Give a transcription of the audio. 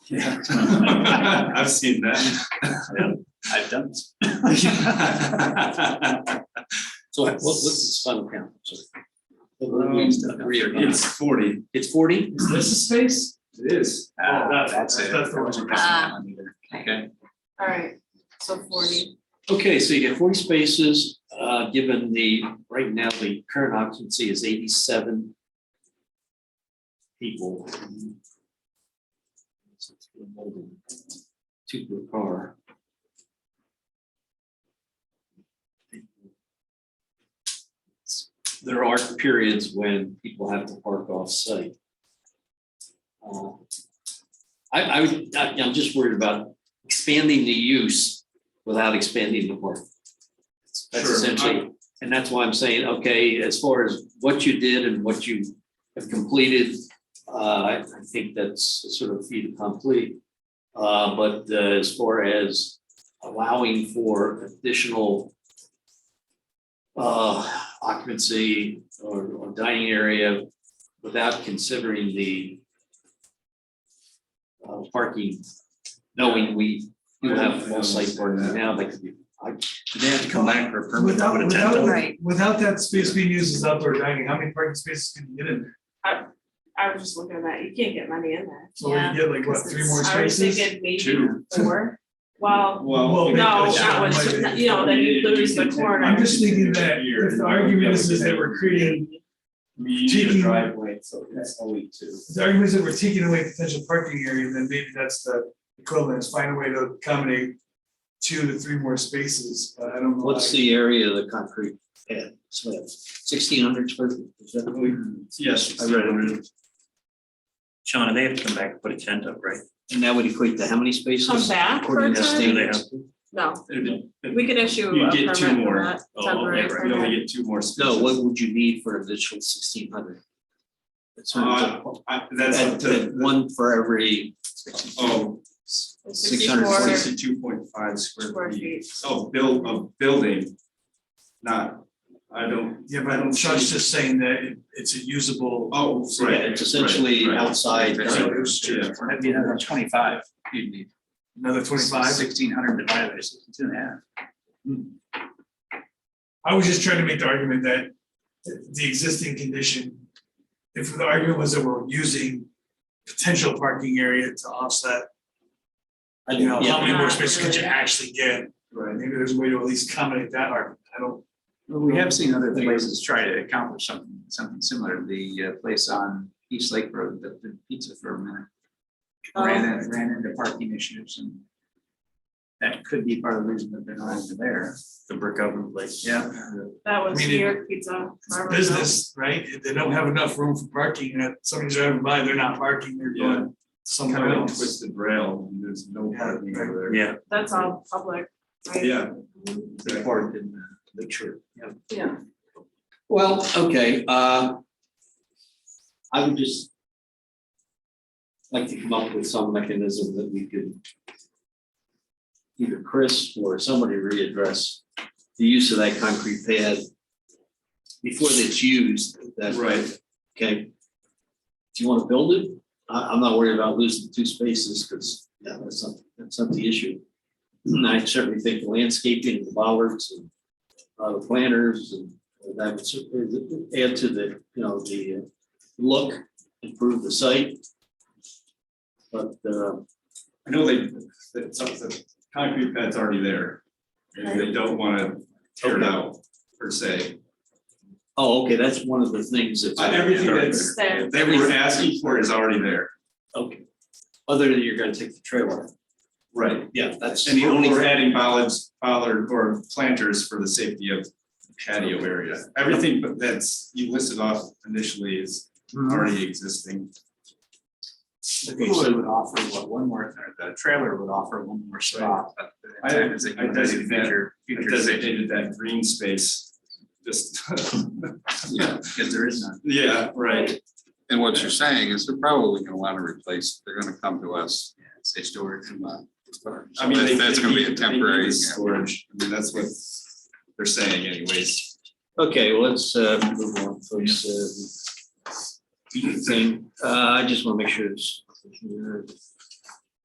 Yeah. I've seen that. I've done this. So what, what's this final count? Sorry. What- what do we still have? Three or nine? It's forty. It's forty? Is this a space? It is. Ah, Oh, that's- that's the one. Ah. Okay, All right, so forty. okay, so you get forty spaces, uh, given the, right now, the current occupancy is eighty-seven people. Two per car. There are periods when people have to park off-site. Uh, I, I would, I- I'm just worried about expanding the use without expanding the work. That's Sure. essentially, and that's why I'm saying, okay, as far as what you did and what you have completed, uh, I, I think that's sort of feat complete. Uh, but uh, as far as allowing for additional uh, occupancy or, or dining area without considering the uh, parking, knowing we do have Yeah, I off-site parking understand that. now, that could be, They have to come back for a permit. Without, put a tent without, up? Right. without that space being used as outdoor dining, how many parking spaces can you get in there? I was just looking at that, you can't get many in there. So we can get like, what, three more I spaces? was thinking maybe Two. four. Well, Well. no, maybe that's that not was, like just- it. you know, then you lose the corner. I'm just thinking that if the argument is, is that we're creating, Medium Taking- driveway, so that's only two. if the argument is that we're taking away potential parking area, then maybe that's the equivalent, is find a way to accommodate two to three more spaces, but I don't know. what's the area of the concrete pad, sixteen hundred square feet? is that what we- Yes. I read Shauna, they have to come back and put a tent up, right? And that would equate to how many spaces? Come back for a According to time? standards? No, You we could issue a permit get two for more. that Oh, temporary okay, right. You permit. only get two more spaces. No, what would you need for an additional sixteen hundred? That's what I'm talking about. I- Uh, That's up That- that to, one for every, oh, Six hundred and 64 sixty-two point five square Square feet. feet. Oh, build, a building. Not, I don't, Yeah, but Chuck's just saying that it, it's a usable, oh, so right. yeah, it's essentially right, right. outside. Right, dining room. yeah. That'd be another twenty-five. You'd need another twenty-five. Sixteen hundred divided by sixty-two and a half. Hmm. I was just trying to make the argument that the the existing condition, if the argument was that we're using potential parking area to offset, I you know, yeah. how many more Not spaces could you really. actually get? Right, maybe there's a way to at least accommodate that argument. I don't, Well, we have seen other places try to accomplish something, something similar. The uh, place on East Lake Road, that did pizza for a minute. Ran in, ran into parking issues and that could be part of the reason that they're not over there. the brick oven place. Yeah. That I was mean, New it- York Pizza. it's Marvin House. business, right? If They don't have enough room for parking, and if somebody's driving by, they're not parking, they're Yeah. going somewhere Kind of like else. twisted rail, and there's no Yeah, parking right. over Yeah, That's all public, right? Mm-hmm. there. Yeah. They parked in the- the church. Yeah. Well, okay, uh. I would just. Like to come up with some mechanism that we could. Either Chris or somebody readdress the use of that concrete pad. Before it's used, that. Right. Okay. Do you wanna build it? I, I'm not worried about losing two spaces, cause, yeah, that's not, that's not the issue. And I certainly think the landscaping, the bollards and, uh, the planters and and that would certainly add to the, you know, the uh, look, improve the site. But, uh, I know they, that some, the concrete pad's already there, and they don't wanna tear it out per se. oh, okay, that's one of the things that's. Uh, Everything that's, It's there. they were asking for is already there. Okay, other than you're gonna take the trailer. Right. Yeah, that's. And the only, we're adding bollards, bollard or planters for the safety of patio area. Everything but that's, you listed off initially is Mm-hmm. already existing. The cooler would offer what, one more, or the trailer would offer one more spot. but the I- intent is that I you would do designate- future- It future designated that green space, just. Yeah, Because there is none. Yeah, right. And what you're saying is they're probably gonna wanna replace, they're gonna come to us. Say storage. I mean, they- That's gonna be they need- they a need temporary. the Storage, I mean, that's what they're saying anyways. Okay, well, let's uh, move on, folks. Uh, Thing, uh, I just wanna make sure it's.